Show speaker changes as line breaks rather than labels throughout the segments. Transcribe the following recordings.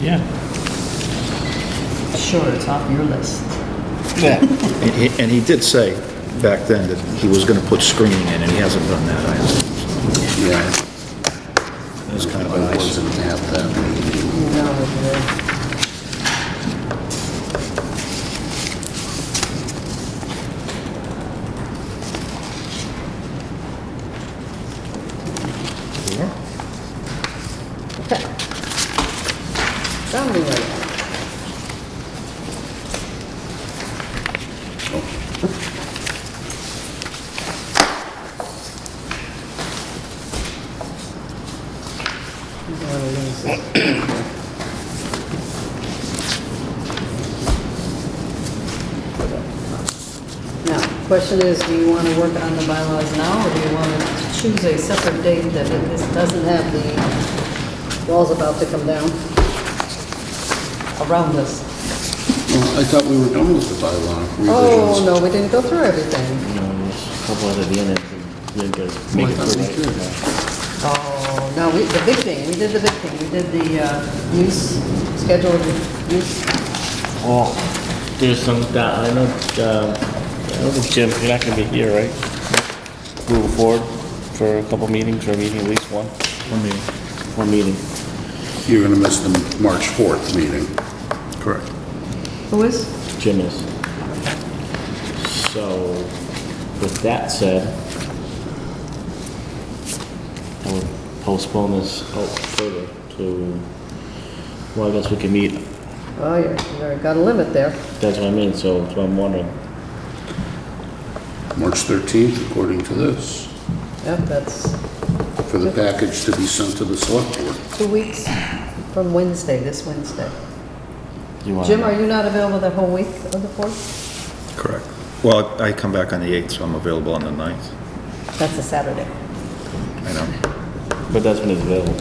yeah.
Sure, it's off your list.
Yeah.
And he- and he did say back then that he was going to put screening in, and he hasn't done that either.
Yeah.
It's kind of
I
nice.
wasn't at that meeting.
No, Okay. Zombie land. You don't wanna lose this. Now, question is, do you want to work on the bylaws now, or do you want to choose a separate date that it this doesn't have the walls about to come down around us?
Well, I thought we were done with the bylaw
Oh,
revisions.
no, we didn't go through everything.
You know, there's a couple other Viennas, we didn't go make
I
it
thought
through
we
right.
did.
Oh, no, we, the big thing, we did the big thing, we did the uh, use, scheduled use.
Oh, there's some, that- I know, uh, I don't think Jim, you're not gonna be here, right? Moving forward for a couple meetings, or a meeting, at least one,
One meeting.
one meeting.
You're going to miss the March 4th meeting. Correct.
Who is?
Jim is. So, with that said, I would postpone this out further to, well, I guess we can meet,
Oh, you're- you already got a limit there.
that's what I mean, so that's what I'm wondering.
March 13th, according to this,
Yep, that's
for the package to be sent to the select board.
two weeks from Wednesday, this Wednesday.
You want-
Jim, are you not available the whole week of the 4th?
Correct. Well, I come back on the 8th, so I'm available on the 9th.
That's a Saturday.
I know.
But that's when it's available.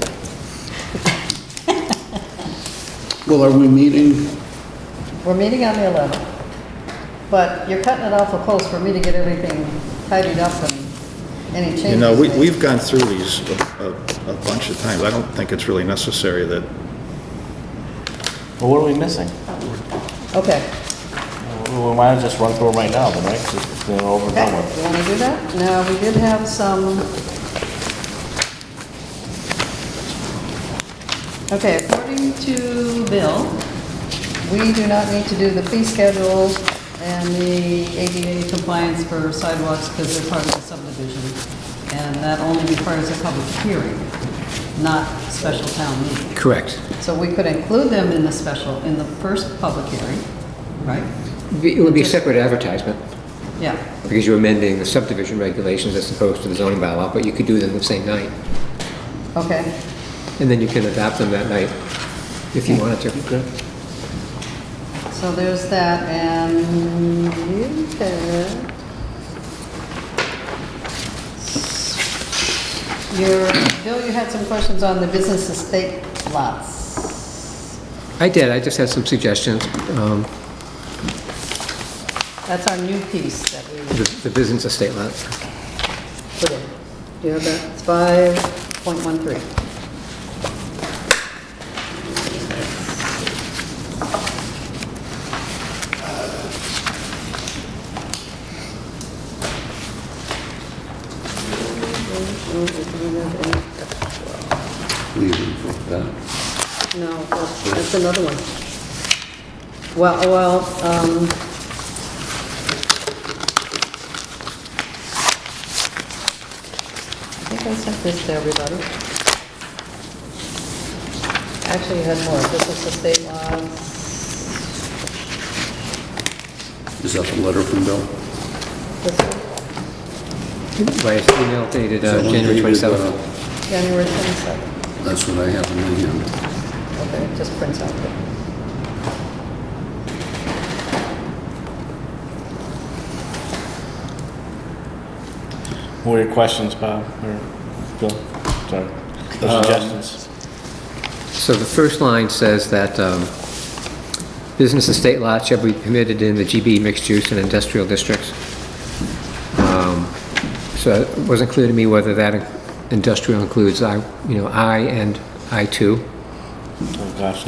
Well, are we meeting?
We're meeting on the 11th, but you're cutting it awful close for me to get everything tidied up and any changes
You know, we-
made.
we've gone through these a- a a bunch of times. I don't think it's really necessary that,
Well, what are we missing?
Okay.
We might as well just run through them right now, then, right? 'Cause they're over and
Okay,
done with.
you want to do that? Now, we did have some... Okay, according to Bill, we do not need to do the fee schedule and the ADA compliance for sidewalks because they're part of the subdivision. And that only requires a public hearing, not special town meeting.
Correct.
So we could include them in the special, in the first public hearing, right?
It would be a separate advertisement,
Yeah.
because you're amending the subdivision regulations as opposed to the zoning bylaw, but you could do them the same night,
Okay.
and then you can adopt them that night if you wanted to.
So there's that, and you can... Your, Bill, you had some questions on the business estate lots.
I did, I just had some suggestions. Um,
That's our new piece that we
The the business estate lot,
put in. Do you have that? It's 5.13.
Leaving for that.
No, that's that's another one. Well, well, um... I think I sent this to everybody. Actually, you had more, this is the state laws,
Is that the letter from Bill?
this one,
by email dated uh,
Is that one
January
dated,
27th.
uh,
January 27th.
That's what I have in my hand.
Okay, it just prints out there.
What were your questions, Bob, or Bill? Sorry. Or suggestions?
So the first line says that um, business estate lots shall be permitted in the GB mixed use and industrial districts. Um, So it wasn't clear to me whether that industrial includes I, you know, I and I2.
Oh, gosh,